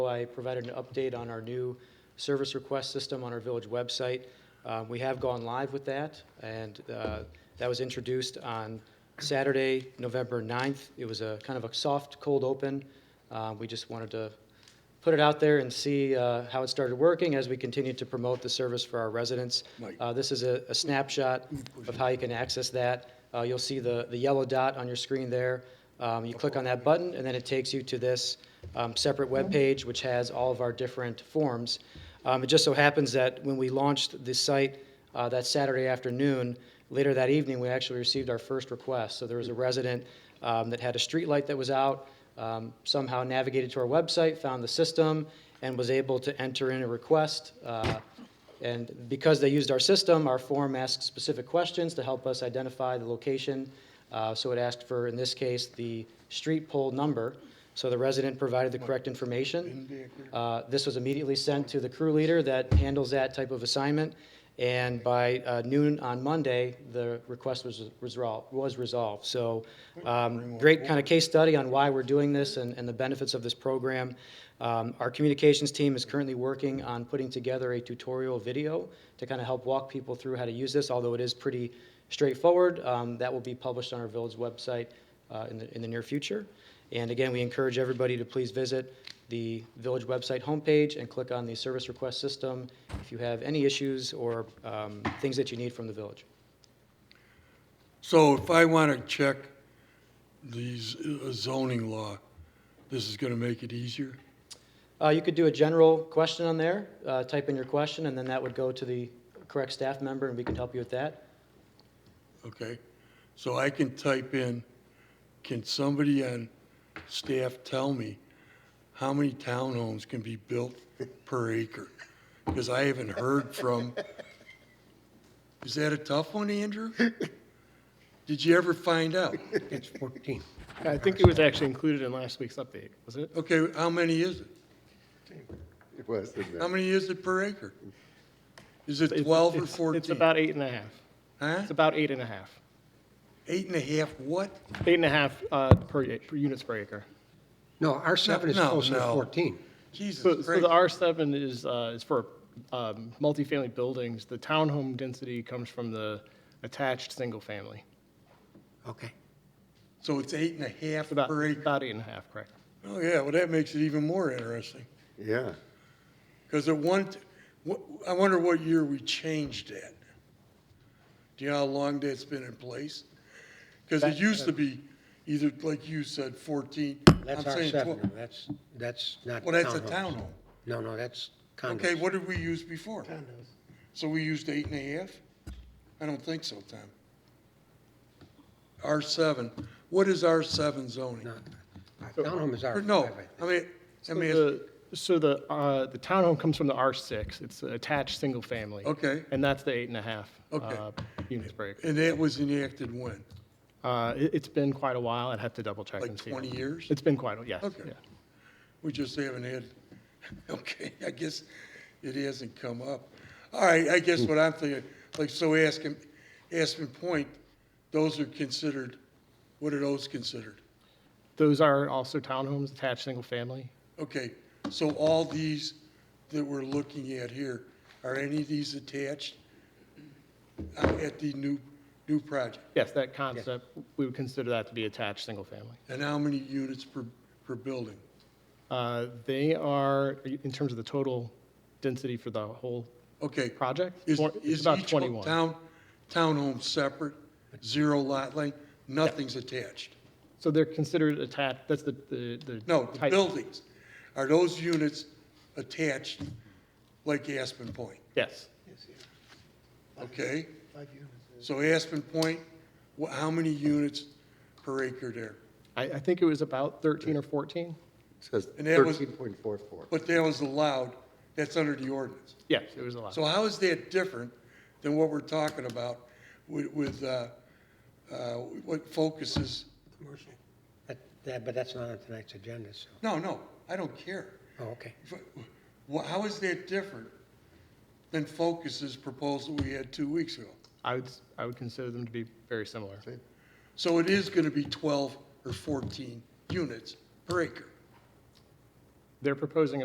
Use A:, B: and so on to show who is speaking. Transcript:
A: I provided an update on our new service request system on our village website. Uh, We have gone live with that, and uh, that was introduced on Saturday, November 9th. It was a kind of a soft, cold open. Uh, We just wanted to put it out there and see uh, how it started working as we continue to promote the service for our residents.
B: Mike.
A: Uh, This is a a snapshot of how you can access that. Uh, You'll see the the yellow dot on your screen there. Um, You click on that button, and then it takes you to this um, separate webpage, which has all of our different forms. Um, It just so happens that when we launched the site uh, that Saturday afternoon, later that evening, we actually received our first request. So there was a resident um, that had a streetlight that was out, um, somehow navigated to our website, found the system, and was able to enter in a request uh, and because they used our system, our form asks specific questions to help us identify the location. Uh, So it asked for, in this case, the street pole number. So the resident provided the correct information. Uh, This was immediately sent to the crew leader that handles that type of assignment. And by uh, noon on Monday, the request was resolved, was resolved. So um, great kind of case study on why we're doing this and, and the benefits of this program. Um, Our communications team is currently working on putting together a tutorial video to kind of help walk people through how to use this, although it is pretty straightforward. Um, That will be published on our village website uh, in the, in the near future. And again, we encourage everybody to please visit the village website homepage and click on the service request system if you have any issues or um, things that you need from the village.
B: So if I want to check these uh, zoning law, this is going to make it easier?
A: Uh, You could do a general question on there, uh, type in your question, and then that would go to the correct staff member, and we can help you with that.
B: Okay? So I can type in, can somebody on staff tell me how many townhomes can be built per acre? Because I haven't heard from, is that a tough one, Andrew? Did you ever find out?
C: It's 14.
D: I think it was actually included in last week's update, was it?
B: Okay, how many is it?
E: It was, didn't
B: How
E: it?
B: many is it per acre? Is it
D: It's-
B: 12 or
D: it's-
B: 14?
D: It's about eight and a half.
B: Huh?
D: It's about eight and a half.
B: Eight and a half what?
D: Eight and a half uh, per, ac- per units per acre.
C: No, our 7 is
B: No,
C: closer to
B: no.
C: 14.
D: So,
B: Jesus
D: so the
B: Christ.
D: R7 is, uh, is for um, multifamily buildings. The townhome density comes from the attached single family.
C: Okay.
B: So it's eight and a half
D: It's about,
B: per acre?
D: about eight and a half, correct?
B: Oh, yeah, well, that makes it even more interesting.
E: Yeah.
B: Because at one, t- wh- I wonder what year we changed that. Do you know how long that's been in place? Because it used to be either, like you said, 14.
C: That's
B: I'm
C: our
B: saying
C: 7.
B: 12.
C: No, That's, that's not.
B: Well, that's a
C: townhomes.
B: townhome.
C: No, no, that's
B: Okay,
C: condos.
B: what did we use before? So we used eight and a half? I don't think so, Tom. R seven, what is R seven zoning?
C: No, a Townhome is
B: Or
C: our 5,
B: no,
C: I think.
B: I mean, I
D: So
B: mean,
D: the, so the, uh, the townhome comes from the R6. It's an attached single family.
B: Okay.
D: And that's the eight and a half
B: Okay.
D: uh, units per acre.
B: and that was enacted when?
D: Uh, it, it's been quite a while. I'd have to double check
B: Like
D: and see.
B: twenty years?
D: It's been quite a, yes.
B: Okay.
D: yeah.
B: We just haven't had, okay, I guess it hasn't come up. All right, I guess what I'm thinking, like, so Aspen, Aspen Point, those are considered, what are those considered?
D: Those are also townhomes, attached, single-family.
B: Okay, so all these that we're looking at here, are any of these attached uh, at the new, new project?
D: Yes, that concept, we would consider that to be attached, single-family.
B: And how many units per, per building?
D: Uh, They are, in terms of the total density for the whole
B: Okay,
D: project,
B: is,
D: more- it's
B: is
D: about
B: each
D: 21.
B: town, townhome separate, zero lot length, nothing's attached?
D: So they're considered attached, that's the, the. the
B: No, the
D: type-
B: buildings, are those units attached like Aspen Point?
D: Yes.
B: Okay? So Aspen Point, wh- how many units per acre there?
D: I, I think it was about 13 or 14?
E: Says
B: And that was-
E: 13.44.
B: But that was allowed, that's under the ordinance.
D: Yes, it was a lot.
B: So how is that different than what we're talking about with, with, uh, uh, what focuses?
C: Commercial. But, that- but that's not on tonight's agenda, so,
B: No, no, I don't care.
C: oh, okay.
B: Wh- How is that different than Focus's proposal we had two weeks ago?
D: I would, s- I would consider them to be very similar.
B: So it is going to be 12 or 14 units per acre.
D: They're proposing